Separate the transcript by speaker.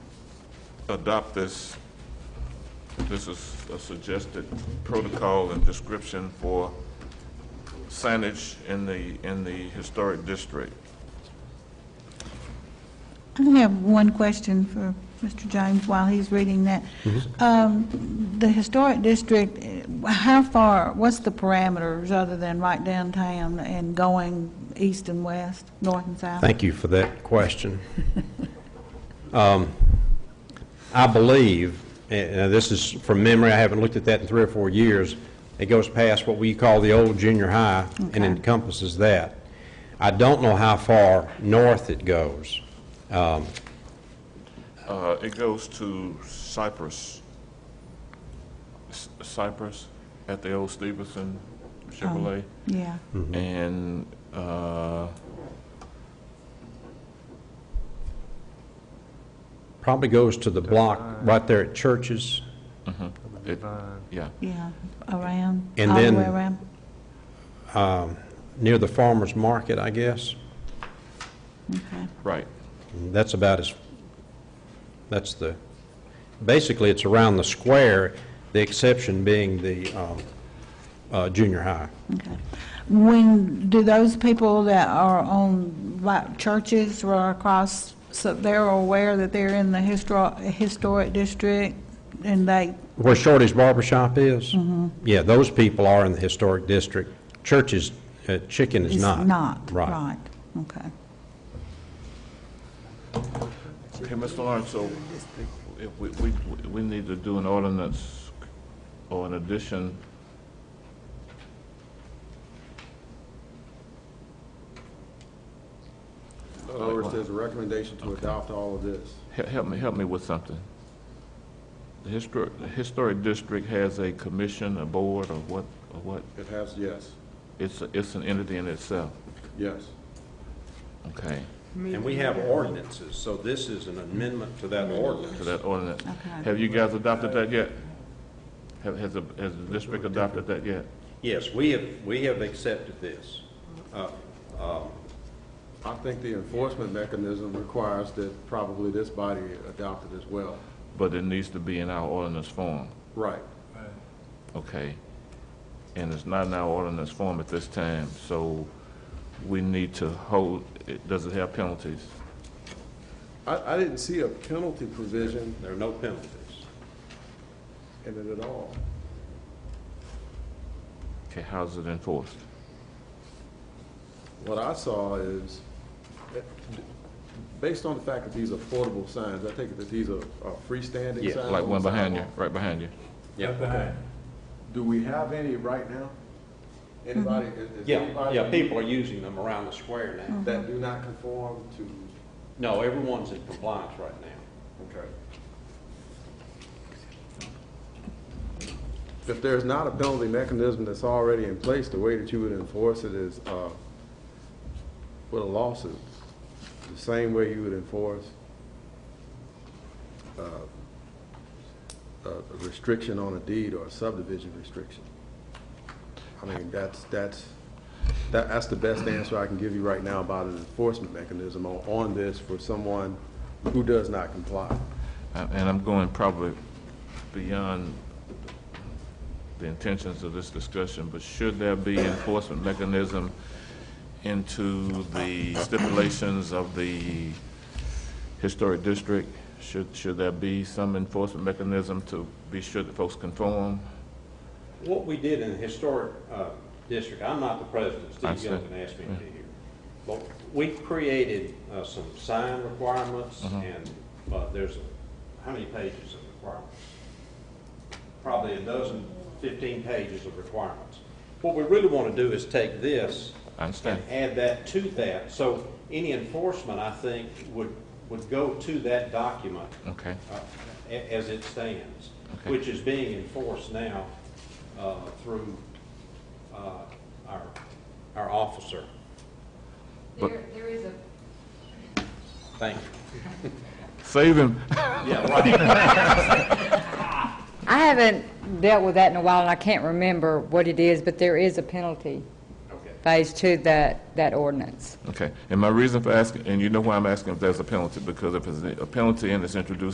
Speaker 1: adopt this, this is a suggested protocol and description for signage in the, in the historic district.
Speaker 2: I have one question for Mr. James while he's reading that.
Speaker 3: Mm-hmm.
Speaker 2: Um, The historic district, eh, how far, what's the parameters other than right downtown and going east and west, north and south?
Speaker 3: Thank you for that question. Um, I believe, and uh, this is from memory, I haven't looked at that in three or four years, it goes past what we call the old junior high and encompasses that. I don't know how far north it goes.
Speaker 1: Uh, It goes to Cypress. S- Cypress at the old Stevenson Chevrolet.
Speaker 2: Yeah,
Speaker 3: Mm.
Speaker 1: And uh,
Speaker 3: Probably goes to the block right there at Churches.
Speaker 1: it, yeah,
Speaker 2: yeah, around,
Speaker 3: And
Speaker 2: all the
Speaker 3: then-
Speaker 2: way around.
Speaker 3: near the farmer's market, I guess.
Speaker 2: Okay.
Speaker 1: right.
Speaker 3: That's about as, that's the, basically, it's around the square, the exception being the um, uh, junior high.
Speaker 2: Okay. When, do those people that are on, like, churches or across, so they're aware that they're in the histor- historic district, and they,
Speaker 3: Where Shorty's Barber Shop is?
Speaker 2: Mm-hmm.
Speaker 3: Yeah, those people are in the historic district. Church's, uh, Chicken is
Speaker 2: it's
Speaker 3: not.
Speaker 2: not?
Speaker 3: Right.
Speaker 2: okay.
Speaker 1: Hey, Mr. Lawrence, so if we, we, we need to do an ordinance or an addition.
Speaker 4: In other words, there's a recommendation to adopt all of this.
Speaker 1: He- Help me, help me with something. The historic, the historic district has a commission, a board, or what, or what?
Speaker 4: It has, yes,
Speaker 1: It's, a- it's an entity in itself,
Speaker 4: yes.
Speaker 1: okay?
Speaker 3: And we have ordinances, so this is an amendment to that
Speaker 1: To
Speaker 3: ordinance.
Speaker 1: that ordinance.
Speaker 2: Okay.
Speaker 1: Have you guys adopted that yet? Have, has, the- has the district adopted that yet?
Speaker 3: Yes, we have, we have accepted this.
Speaker 4: I think the enforcement mechanism requires that probably this body adopt it as well.
Speaker 1: But it needs to be in our ordinance form,
Speaker 4: Right.
Speaker 1: okay? And it's not in our ordinance form at this time, so we need to hold, it- does it have penalties?
Speaker 4: I, I didn't see a penalty provision
Speaker 3: There are no penalties.
Speaker 4: in it at all.
Speaker 1: Okay, how's it enforced?
Speaker 4: What I saw is, eh, based on the fact that these are portable signs, I think that these are are freestanding
Speaker 3: Yeah,
Speaker 4: signs.
Speaker 1: Like
Speaker 4: on
Speaker 1: one
Speaker 4: the
Speaker 1: behind you,
Speaker 4: sidewalk.
Speaker 1: right behind you.
Speaker 4: Do we have any right now? Anybody, is is
Speaker 3: Mm-hmm. Yeah,
Speaker 4: anybody?
Speaker 3: yeah, people are using them around the square
Speaker 2: Mm.
Speaker 3: now.
Speaker 4: That do not conform to
Speaker 3: No, everyone's in compliance right now.
Speaker 4: Okay. If there's not a penalty mechanism that's already in place, the way that you would enforce it is uh, with a lawsuit, the same way you would enforce uh, a a restriction on a deed or a subdivision restriction. I mean, that's, that's, that- that's the best answer I can give you right now about an enforcement mechanism on on this for someone who does not comply.
Speaker 1: Uh, And I'm going probably beyond the intentions of this discussion, but should there be enforcement mechanism into the stipulations of the historic district? Should, should there be some enforcement mechanism to be sure that folks conform?
Speaker 3: What we did in the historic uh, district, I'm not the president,
Speaker 1: I
Speaker 3: Steve
Speaker 1: see.
Speaker 3: Gilligan asked me to be here. But we created uh, some sign requirements
Speaker 1: Uh-huh.
Speaker 3: and uh, there's, how many pages of requirements? Probably a dozen, 15 pages of requirements. What we really want to do is take this
Speaker 1: I understand.
Speaker 3: and add that to that. So any enforcement, I think, would, would go to that document
Speaker 1: Okay,
Speaker 3: uh, a- as it stands,
Speaker 1: Okay.
Speaker 3: which is being enforced now uh, through uh, our, our officer.
Speaker 1: But-
Speaker 5: There, there is a
Speaker 3: Thank you.
Speaker 1: save him.
Speaker 3: Yeah, right.
Speaker 5: I haven't dealt with that in a while, and I can't remember what it is, but there is a penalty
Speaker 3: Okay.
Speaker 5: phase to that, that ordinance.
Speaker 1: Okay, and my reason for asking, and you know why I'm asking if there's a penalty, because if there's a penalty and it's introduced